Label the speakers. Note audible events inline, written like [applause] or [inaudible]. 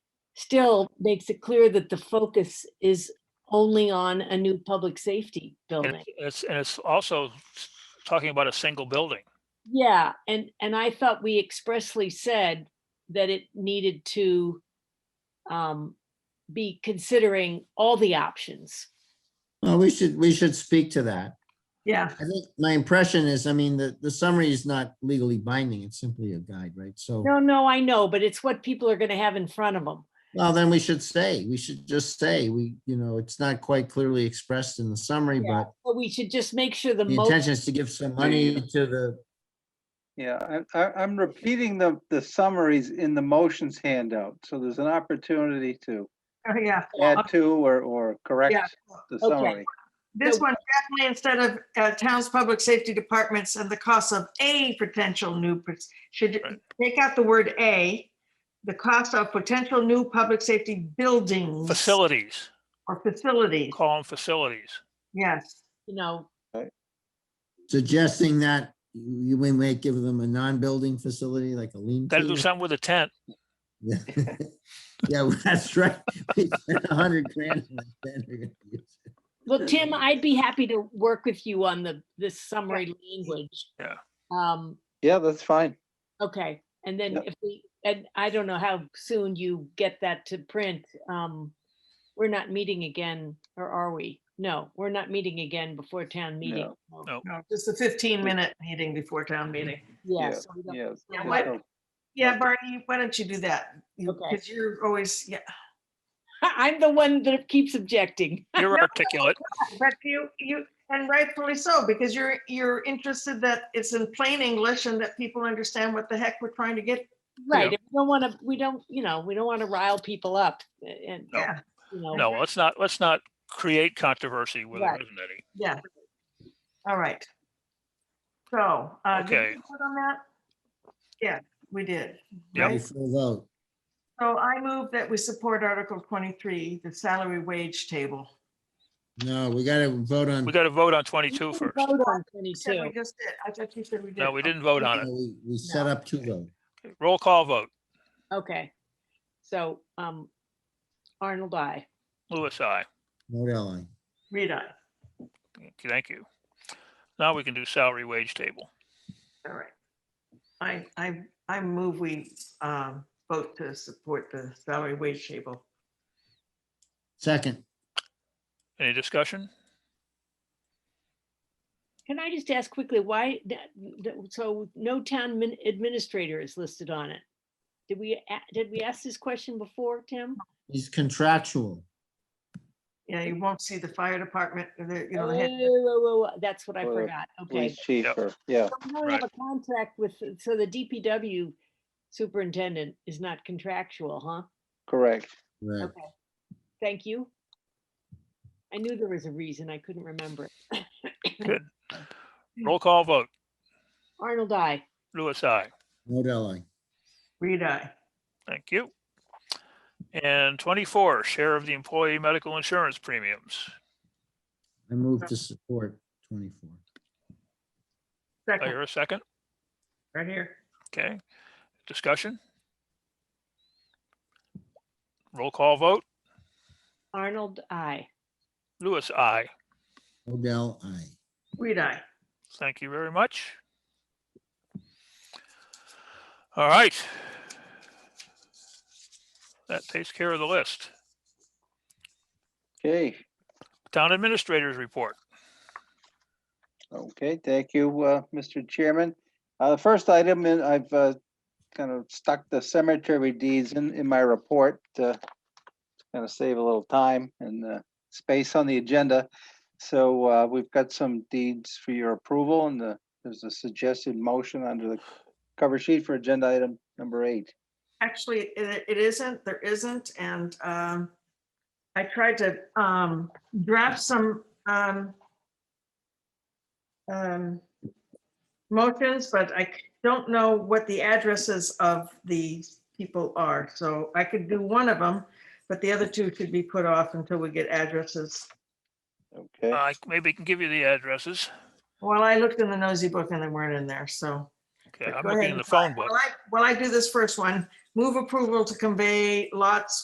Speaker 1: still makes it clear that the focus is only on a new public safety
Speaker 2: And
Speaker 1: building.
Speaker 2: it's- it's, and it's also talking about a single building.
Speaker 1: Yeah, and, and I thought we expressly said that it needed to um, be considering all the options.
Speaker 3: Well, we should, we should speak to that.
Speaker 4: Yeah,
Speaker 3: I think my impression is, I mean, the, the summary is not legally binding. It's simply a guide, right? So,
Speaker 1: No, no, I know, but it's what people are gonna have in front of them.
Speaker 3: well, then we should say, we should just say, we, you know, it's not quite clearly expressed in the summary,
Speaker 1: Yeah.
Speaker 3: but
Speaker 1: But we should just make sure the
Speaker 3: the
Speaker 1: most.
Speaker 3: intention is to give some money to the,
Speaker 5: Yeah, I, I, I'm repeating the, the summaries in the motions handout, so there's an opportunity to
Speaker 4: oh, yeah.
Speaker 5: add to or, or correct the
Speaker 1: okay.
Speaker 5: summary.
Speaker 4: This
Speaker 1: So-
Speaker 4: one, definitely instead of uh, town's public safety departments and the cost of a potential new, pr- should
Speaker 2: Right.
Speaker 4: take out the word a, the cost of potential new public safety buildings.
Speaker 2: Facilities,
Speaker 4: Or facilities,
Speaker 2: call them facilities.
Speaker 4: yes.
Speaker 1: you know,
Speaker 3: suggesting that you- we might give them a non-building facility like a lean.
Speaker 2: Got to do
Speaker 3: to.
Speaker 2: something with
Speaker 1: [laughs]
Speaker 2: a tent.
Speaker 3: Yeah, [laughs] Yeah, that's right. We spent a hundred grand. and then we're gonna use it.
Speaker 1: well, Tim, I'd be happy to work with you on the, this summary language.
Speaker 2: Yeah.
Speaker 1: Um,
Speaker 5: Yeah, that's fine.
Speaker 1: okay, and then
Speaker 5: Yep.
Speaker 1: if we, and I don't know how soon you get that to print. Um, we're not meeting again, or are we? No, we're not meeting again before town meeting. Um,
Speaker 5: No,
Speaker 1: so,
Speaker 2: no. Mm-hmm.
Speaker 4: No, Just a 15-minute meeting before town meeting.
Speaker 1: Yeah,
Speaker 5: Yeah,
Speaker 1: so we don't-
Speaker 5: Yes.
Speaker 4: Yeah,
Speaker 5: there's
Speaker 4: what-
Speaker 5: no-
Speaker 4: Yeah,
Speaker 5: Okay.
Speaker 4: Barney, why don't you do that?
Speaker 1: Okay.
Speaker 4: Because you're always, yeah,
Speaker 1: [laughs] I'm the one that keeps objecting.
Speaker 2: You're articulate.
Speaker 4: but you, you, and rightfully so, because you're, you're interested that it's in plain English and that people understand what the heck we're trying to get.
Speaker 1: Right, and we don't want to, we don't, you know, we don't want to rile people up a- and,
Speaker 2: No.
Speaker 4: Yeah,
Speaker 1: you know.
Speaker 2: No, let's not, let's not create controversy where there
Speaker 1: Right.
Speaker 2: isn't any.
Speaker 4: yeah. All right. So. uh, did we
Speaker 2: Okay.
Speaker 4: vote On that? Yeah, we did.
Speaker 2: Yep.
Speaker 4: right?
Speaker 3: Before vote.
Speaker 4: So I move that we support Article 23, the salary wage table.
Speaker 3: No, we gotta vote on.
Speaker 2: We got to vote on 22
Speaker 1: We
Speaker 2: first.
Speaker 1: can Vote on
Speaker 4: You said we
Speaker 1: 22.
Speaker 4: just did. I thought you said we did.
Speaker 2: No, we didn't vote on
Speaker 3: no, We we set up two votes.
Speaker 2: it. Roll call vote.
Speaker 1: Okay. So, um, Arnold, I.
Speaker 2: Louis, I.
Speaker 3: No airline.
Speaker 4: Read on.
Speaker 2: Thank you. Now we can do salary wage table.
Speaker 4: All right. I, I, I move we um, vote to support the salary wage table.
Speaker 3: Second,
Speaker 2: Any discussion?
Speaker 1: Can I just ask quickly why, that- that- so no town min- administrator is listed on it? Did we, a- did we ask this question before, Tim?
Speaker 3: he's contractual.
Speaker 4: Yeah, you won't see the fire department, or the, you know, the
Speaker 1: Oh,
Speaker 4: head-
Speaker 1: whoa, whoa, whoa, That's what I
Speaker 5: Or
Speaker 1: forgot. Okay.
Speaker 5: Police chief,
Speaker 2: Yep.
Speaker 5: or, yeah,
Speaker 1: So We don't have a contract with, so the DPW superintendent is not contractual, huh?
Speaker 5: correct.
Speaker 3: Right.
Speaker 1: Okay. Thank you. I knew there was a reason. I couldn't remember. it.
Speaker 2: Good.
Speaker 1: Hmm.
Speaker 2: Roll call vote.
Speaker 1: [coughs] Arnold, I.
Speaker 2: Louis, I.
Speaker 3: No airline.
Speaker 4: read I.
Speaker 2: Thank you. And 24, share of the employee medical insurance premiums.
Speaker 3: I move to support twenty-four.
Speaker 2: I
Speaker 4: Second,
Speaker 2: hear a second.
Speaker 4: right here.
Speaker 2: Okay. Discussion? Roll call vote.
Speaker 1: Arnold, I.
Speaker 2: Louis, I.
Speaker 3: Odell, I.
Speaker 4: Read I.
Speaker 2: Thank you very much. All right. That takes care of the list.
Speaker 5: Okay,
Speaker 2: Town Administrators Report.
Speaker 5: okay, thank you, uh, Mr. Chairman. Uh, the first item, and I've, uh, kind of stuck the cemetery deeds in, in my report, uh, kind of save a little time and, uh, space on the agenda. So, uh, we've got some deeds for your approval and the, there's a suggested motion under the cover sheet for agenda item number eight.
Speaker 4: Actually, it, it isn't, there isn't, and um, I tried to um, draft some um, um, motions, but I c- don't know what the addresses of the people are, so I could do one of them, but the other two should be put off until we get addresses.
Speaker 5: Okay,
Speaker 2: I Uh, maybe can give you the addresses.
Speaker 4: Well, I looked in the nosy book and they weren't in there, so.
Speaker 2: Okay,
Speaker 4: Go
Speaker 2: I'm
Speaker 4: ahead
Speaker 2: looking in
Speaker 4: and
Speaker 2: the phone book.
Speaker 4: Well, I, well, I do this first one, move approval to convey lots